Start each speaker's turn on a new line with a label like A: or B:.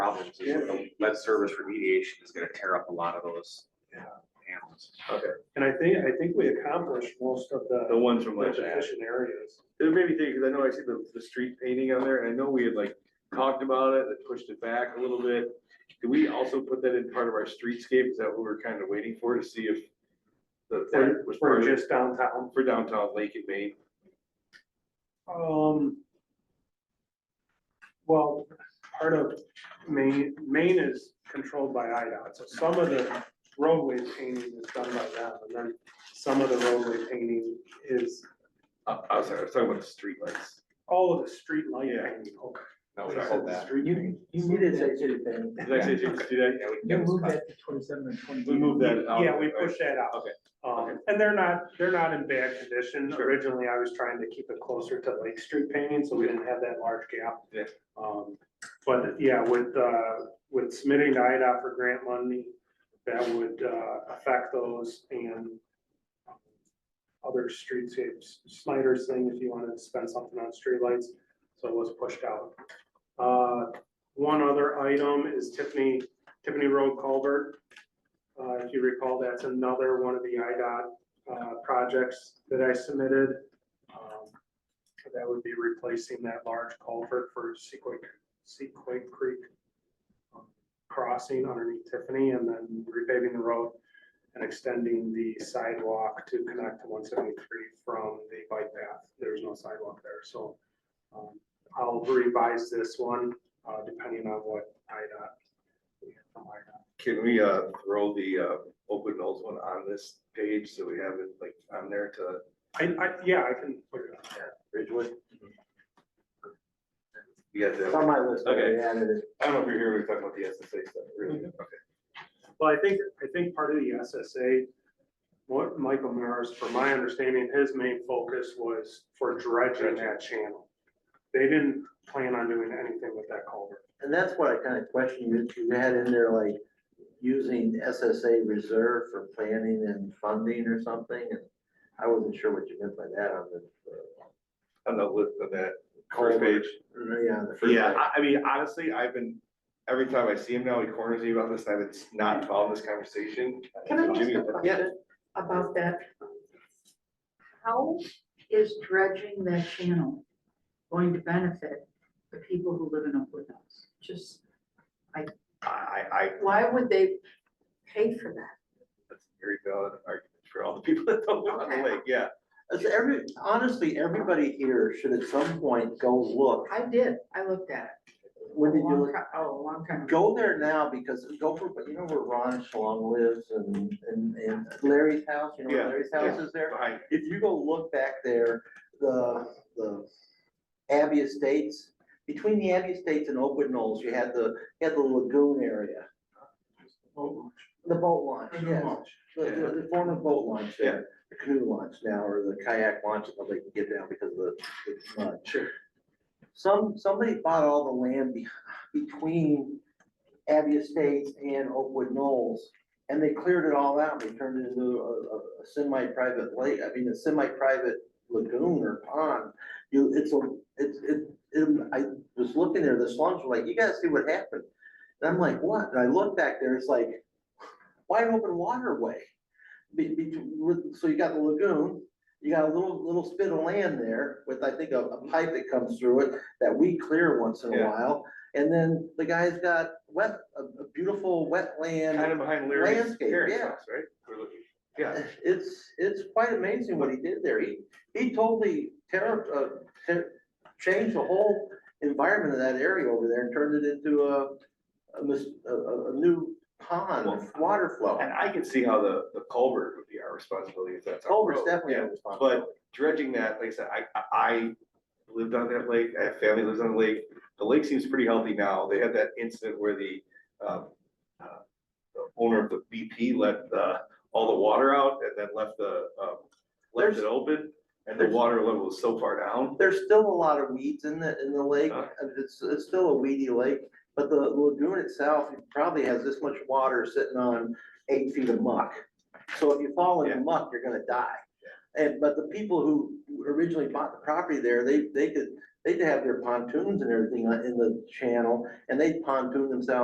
A: problems, is the lead service remediation is gonna tear up a lot of those.
B: Yeah.
A: panels.
C: And I think, I think we accomplished most of
D: The
C: the
D: ones from
C: the
D: last year.
C: deficient areas.
D: It made me think, because I know I see the, the street painting on there, and I know we had like talked about it, that pushed it back a little bit. Do we also put that in part of our streetscape? Is that what we're kind of waiting for to see if the, that
C: We're,
D: was
C: we're
D: part of,
C: just downtown.
D: for downtown Lake and Main?
C: Um. Well, part of Maine, Maine is controlled by IDOT, so some of the roadway painting is done by them, and then some of the roadway painting is
D: Uh, I was, I was talking about the streetlights.
C: all of the street light
D: Yeah.
C: painting.
D: Not
B: We
D: what
B: said
D: I said.
B: that.
E: You, you needed that to then.
D: Did I say, did you see that? Yeah,
E: You
D: that was
E: moved
D: fine.
E: that to twenty-seven and twenty-eight.
D: We moved that out.
C: Yeah, we pushed that out.
D: Okay.
C: Um, and they're not, they're not in bad condition.
D: Sure.
C: Originally, I was trying to keep it closer to Lake Street painting, so we didn't have that large gap.
D: Yeah.
C: Um, but yeah, with, uh, with submitting to IDOT for grant money, that would, uh, affect those and um, other streetscapes. Snyder's thing, if you wanted to spend something on streetlights, so it was pushed out. Uh, one other item is Tiffany, Tiffany Road Culvert. Uh, if you recall, that's another one of the IDOT, uh, projects that I submitted. Um, That would be replacing that large culvert for Sequoia, Sequoia Creek um, crossing underneath Tiffany and then repaving the road and extending the sidewalk to connect to one seventy-three from the bike path. There's no sidewalk there, so um, I'll revise this one, uh, depending on what IDOT. we get from IDOT.
D: Can we, uh, throw the, uh, open nose one on this page so we have it like on there to
C: I, I, yeah, I can put it on there.
D: Ridgewood? You guys
E: It's
D: have-
E: on my list, but I
D: Okay.
E: added it.
D: I don't know if you're here, we we're talking about the SSA stuff, really.
E: Mm-hmm.
D: Okay.
C: Well, I think, I think part of the SSA, what Michael Maris, from my understanding, his main focus was for dredging that channel. They didn't plan on doing anything with that culvert.
E: And that's what I kind of questioned, you, you had in there like using SSA reserve for planning and funding or something, and I wasn't sure what you meant by that on the.
D: On the list on that first page.
E: uh, Yeah, on the first.
D: Yeah,
E: page.
D: I, I mean, honestly, I've been, every time I see him now, he corners me about this, and I've been not involved in this conversation.
F: Can I ask
D: Jimmy,
F: a
D: yeah.
F: question about that? How is dredging that channel going to benefit the people who live in Oakwood House? Just,
D: I, I,
F: why would they pay for that?
D: that's a very valid argument for all the people that don't live on the lake, yeah.
E: As every, honestly, everybody here should at some point go look.
F: I did, I looked at it.
E: When did
F: A
E: you
F: long
E: look?
F: ti- Oh, a long time ago.
E: Go there now because go for, you know where Ron Shalom lives and, and, and Larry's house, you know where
D: Yeah,
E: Larry's house
D: yeah.
E: is there?
D: Behind,
E: If you go look back there, the, the Abbey Estates, between the Abbey Estates and Oakwood Knolls, you had the, you had the lagoon area. The boat Oh, launch,
D: Mm-hmm.
E: yes. The, the, the former boat launch there, the canoe launch now, or the kayak launch, if they can get down because of the, the mud.
D: Sure.
E: Some, somebody bought all the land be- between Abbey Estates and Oakwood Knolls. And they cleared it all out, and they turned it into a, a a semi-private lake, I mean, a semi-private lagoon or pond. You, it's a, it's, it, it- I was looking there, the slums were like, you gotta see what happened. And I'm like, what? And I look back there, it's like wide open waterway. Be, be, with- so you got the lagoon, you got a little, little spit of land there with, I think, a, a pipe that comes through it that we clear once in a
D: Yeah.
E: while. And then the guy's got wet, a, a beautiful wetland.
D: kind of behind Larry's
E: Landscape,
D: parents'
E: yeah.
D: house, right? We're looking, yeah.
E: It's, it's quite amazing what he did there. He, he totally terra, uh, ter- changed the whole environment of that area over there and turned it into a, a, mis- a- a- a new pond, water flow.
D: And I can see how the, the culvert would be our responsibility if that's. our
E: Culvert's
D: road.
E: definitely
D: Yeah.
E: a responsibility.
D: dredging that, like I said, I, I- I lived on that lake, I have family lives on the lake. The lake seems pretty healthy now. They had that incident where the, um, uh, the owner of the BP let, uh, all the water out and then left the, um, left it
E: There's-
D: open and the
E: there's-
D: water level was so far down.
E: There's still a lot of weeds in the, in the lake.
D: Huh?
E: and It's, it's still a weedy lake, but the lagoon itself probably has this much water sitting on eight feet of muck. So if you fall in the muck, you're gonna die. And, but the people who originally bought the property there, they, they could, they'd have their pontoons and everything in the channel, and they'd pontoon themselves